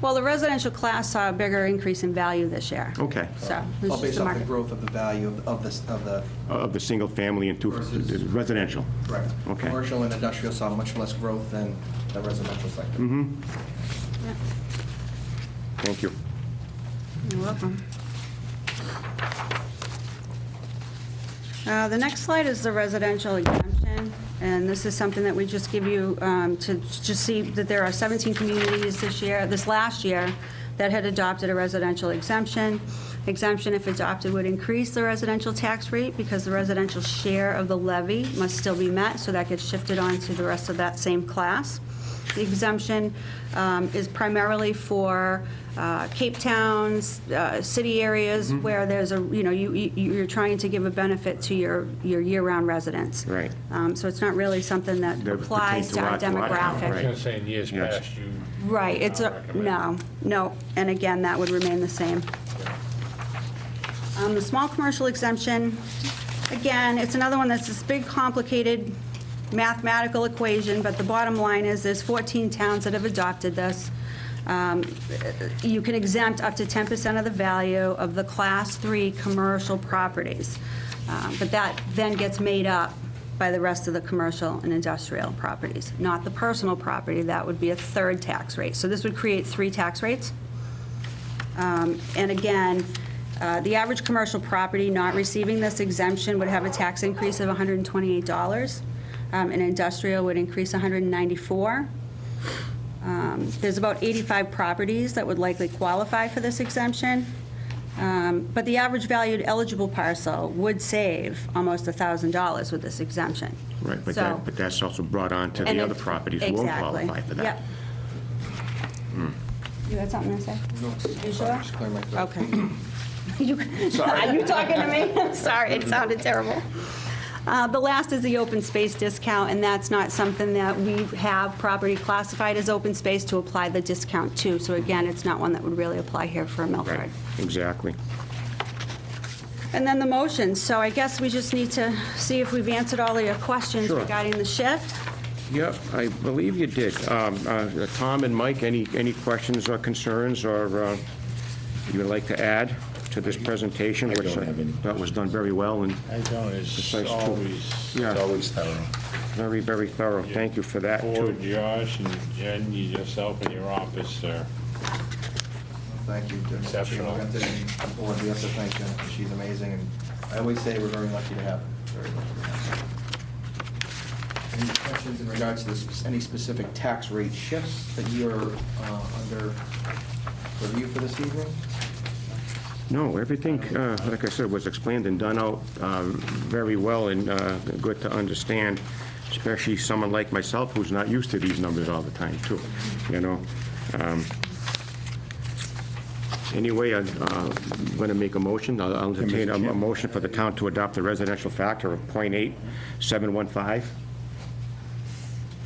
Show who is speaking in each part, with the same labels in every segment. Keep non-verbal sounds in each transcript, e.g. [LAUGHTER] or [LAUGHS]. Speaker 1: Well, the residential class saw a bigger increase in value this year.
Speaker 2: Okay.
Speaker 1: So, it
Speaker 3: All
Speaker 1: was just
Speaker 3: based
Speaker 1: the
Speaker 3: off the
Speaker 1: market.
Speaker 3: growth of the value of, of the, of the,
Speaker 2: Uh, Of the single-family and two,
Speaker 3: Versus-
Speaker 2: residential?
Speaker 3: correct.
Speaker 2: Okay.
Speaker 3: Commercial and industrial saw much less growth than the residential sector.
Speaker 1: Yeah.
Speaker 2: Thank you.
Speaker 1: You're welcome. Uh, The next slide is the residential exemption, and this is something that we just give you um, to just see that there are 17 communities this year, this last year, that had adopted a residential exemption. Exemption, if adopted, would increase the residential tax rate because the residential share of the levy must still be met, so that gets shifted on to the rest of that same class. The exemption um, is primarily for uh, Cape Towns, uh, city areas where there's a, you know, you, you- you're trying to give a benefit to your, your year-round residents.
Speaker 2: Right.
Speaker 1: Um, So it's not really something that
Speaker 2: That
Speaker 1: applies
Speaker 2: pertains
Speaker 1: to
Speaker 2: to
Speaker 1: our
Speaker 2: lot- lot count,
Speaker 1: demographic.
Speaker 2: right.
Speaker 4: I was gonna say, in years
Speaker 2: Yes.
Speaker 4: past, you.
Speaker 1: Right, it's
Speaker 4: not
Speaker 1: a,
Speaker 4: recommend.
Speaker 1: no, no, and again, that would remain the same. Um, The small commercial exemption, again, it's another one that's this big, complicated mathematical equation, but the bottom line is, there's 14 towns that have adopted this. Um, You can exempt up to 10% of the value of the Class 3 commercial properties, Um, but that then gets made up by the rest of the commercial and industrial properties, not the personal property. That would be a third tax rate. So this would create three tax rates. Um, And again, uh, the average commercial property not receiving this exemption would have a tax increase of $128, um, and industrial would increase $194. Um, There's about 85 properties that would likely qualify for this exemption, Um, but the average valued eligible parcel would save almost $1,000 with this exemption.
Speaker 2: Right, but
Speaker 1: So-
Speaker 2: that, but that's also brought on to
Speaker 1: and
Speaker 2: the other
Speaker 1: it-
Speaker 2: properties who won't
Speaker 1: exactly.
Speaker 2: qualify for that. Hmm.
Speaker 1: Yep. You had something to say? You sure?
Speaker 3: Just clear my throat.
Speaker 1: Okay. [CLEARS THROAT] You-
Speaker 2: [LAUGHS]
Speaker 1: Are you talking to me? I'm sorry, it sounded terrible. Uh, The last is the open space discount, and that's not something that we have property classified as open space to apply the discount to. So again, it's not one that would really apply here for
Speaker 2: Right,
Speaker 1: Milford.
Speaker 2: exactly.
Speaker 1: And then the motions, so I guess we just need to see if we've answered all of your questions
Speaker 2: Sure.
Speaker 1: regarding the shift.
Speaker 2: Yep, I believe you did. Um, uh, Tom and Mike, any, any questions or concerns or uh, you would like to add to this presentation?
Speaker 5: I
Speaker 2: which
Speaker 5: don't have any.
Speaker 2: That was done very well and
Speaker 5: I don't, it's
Speaker 2: Precise tool.
Speaker 5: always,
Speaker 2: Yeah.
Speaker 5: it's always thorough.
Speaker 2: very, very thorough. Thank you for that,
Speaker 4: Or
Speaker 2: too.
Speaker 4: Josh and Jen, you yourself in your office, sir.
Speaker 3: Thank you. Jennifer.
Speaker 4: Exceptional.
Speaker 3: We have to- the board, we have to thank Jennifer. She's amazing, and I always say we're very lucky to have her. Very lucky to have her. Any questions in regards to this, any specific tax rate shifts that you're uh, under review for this evening?
Speaker 2: No, everything, uh, like I said, was explained and done out um, very well and uh, good to understand, especially someone like myself who's not used to these numbers all the time, too, you know? Um, Anyway, I'm going to make a motion. I'll I'll entertain a a motion for the town to adopt the residential factor of .8715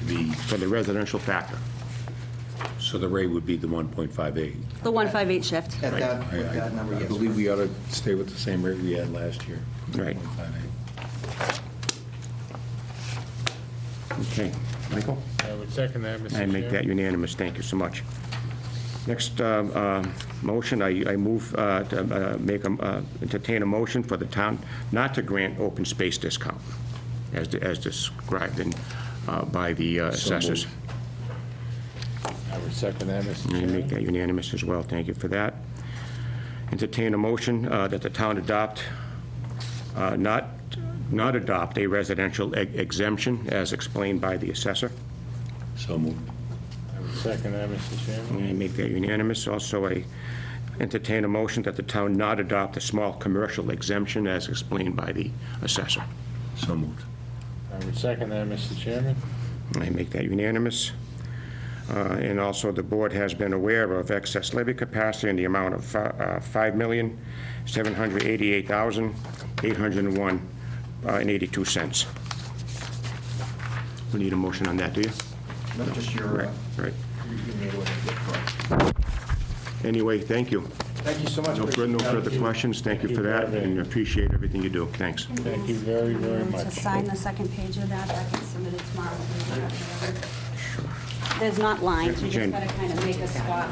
Speaker 5: The,
Speaker 2: for the residential factor.
Speaker 5: so the rate would be the 1.58.
Speaker 1: The 158 shift.
Speaker 3: At that,
Speaker 5: I-
Speaker 3: with that number,
Speaker 5: I
Speaker 3: yes.
Speaker 5: I believe we ought to stay with the same rate we had last year.
Speaker 2: Right.
Speaker 5: 1.58.
Speaker 2: Okay. Michael?
Speaker 4: I would second that, Mr.
Speaker 2: I
Speaker 4: Chairman.
Speaker 2: make that unanimous, thank you so much. Next um, uh, motion, I I move uh, to uh, make, a- uh, entertain a motion for the town not to grant open space discount, as as described in, uh, by the uh,
Speaker 5: So moved.
Speaker 2: assessors.
Speaker 4: I would second that, Mr.
Speaker 2: I make
Speaker 4: Chairman.
Speaker 2: that unanimous as well, thank you for that. Entertain a motion uh, that the town adopt, uh, not, not adopt a residential e- exemption as explained by the assessor.
Speaker 5: So moved.
Speaker 4: I would second that, Mr. Chairman.
Speaker 2: I make that unanimous. Also, I entertain a motion that the town not adopt a small commercial exemption as explained by the assessor.
Speaker 5: So moved.
Speaker 4: I would second that, Mr. Chairman.
Speaker 2: I make that unanimous. Uh, And also, the board has been aware of excess levy capacity in the amount of fi- uh, $5,788,801 uh, and 82 cents. We need a motion on that, do you?
Speaker 3: Not just your,
Speaker 2: Right,
Speaker 3: uh,
Speaker 2: right.
Speaker 3: you made what you did for us.
Speaker 2: Anyway, thank you.
Speaker 3: Thank you so much.
Speaker 2: No fur- no further questions. Thank you for that, and appreciate everything you do. Thanks.
Speaker 4: Thank you very, very
Speaker 1: Um, To
Speaker 4: much.
Speaker 1: sign the second page of that, that gets submitted tomorrow. There's not lines, you just
Speaker 2: Jen.
Speaker 1: gotta kind of make a spot